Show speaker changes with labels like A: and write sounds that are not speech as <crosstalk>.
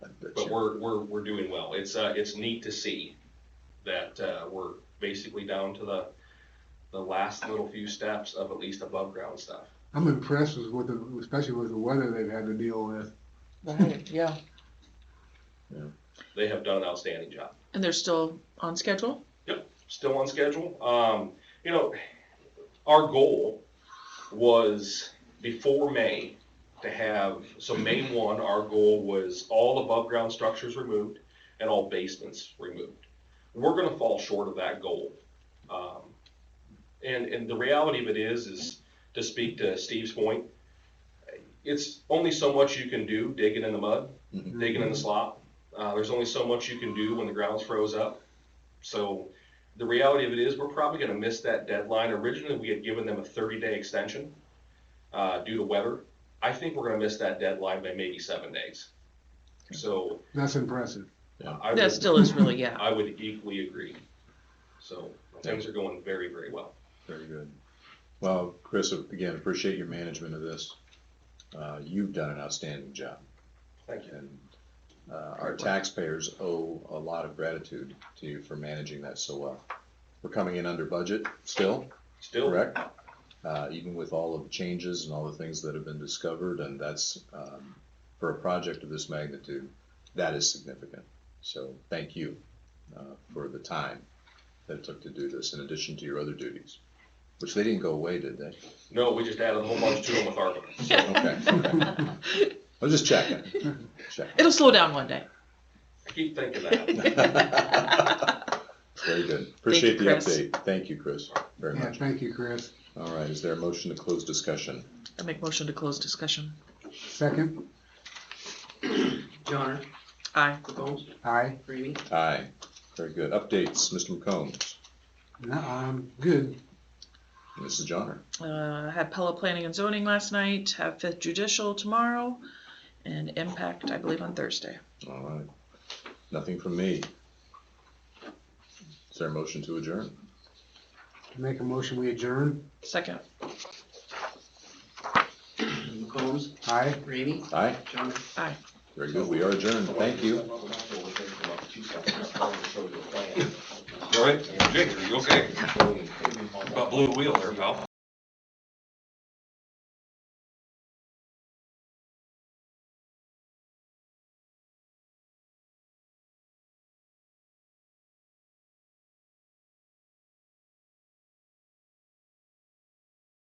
A: we're, we're, we're doing well. It's, uh, it's neat to see that, uh, we're basically down to the, the last little few steps of at least above ground stuff.
B: I'm impressed with what the, especially with the weather they've had to deal with.
C: Right, yeah.
A: They have done an outstanding job.
C: And they're still on schedule?
A: still on schedule. Um, you know, our goal was before May to have, so May one, our goal was all above ground structures removed and all basements removed. We're gonna fall short of that goal. Um, and, and the reality of it is, is to speak to Steve's point, it's only so much you can do digging in the mud digging in the slop. Uh, there's only so much you can do when the ground's froze up. So the reality of it is, we're probably going to miss that deadline. Originally, we had given them a 30-day extension uh, due to weather. I think we're going to miss that deadline by maybe seven days. So
B: That's impressive.
A: I
C: That
A: would,
C: still is really, yeah.
A: I would equally agree. So things are going very, very well.
D: Very good. Well, Chris, again, appreciate your management of this. Uh, you've done an outstanding job,
A: Thank you.
D: and uh, our taxpayers owe a lot of gratitude to you for managing that so well. We're coming in under budget still,
A: Still,
D: correct? Uh, even with all of the changes and all the things that have been discovered, and that's, um, for a project of this magnitude, that is significant. So thank you, uh, for the time that it took to do this, in addition to your other duties, which they didn't go away, did they?
A: no, we just added a whole bunch to them with ARPA. So
D: Okay. I was just checking. Checking.
C: <laughs> It'll slow down one day.
A: I keep thinking that.
D: Very good. Appreciate the
C: Chris.
D: update. Thank you, Chris, very
B: Yeah,
D: much.
B: thank you, Chris.
D: All right, is there a motion to close discussion?
C: I make motion to close discussion.
B: Second,
E: Johnner,
C: Aye.
E: Bones,
B: aye.
E: Ramey,
D: Aye. Very good. Updates, Mr. McCombs,
B: No, I'm good.
D: Mrs. Johnner.
C: Uh, had Pella Planning and Zoning last night, have Fifth Judicial tomorrow, and Impact, I believe, on Thursday.
D: All right. Nothing from me. Is there a motion to adjourn?
B: Make a motion, we adjourn.
C: Second.
E: McCombs,
B: Aye.
E: Ramey,
D: Aye.
E: Johnner.
D: Very good. We are adjourned. Thank you.
A: All right, Jake, are you okay? Got blue wheel there, pal.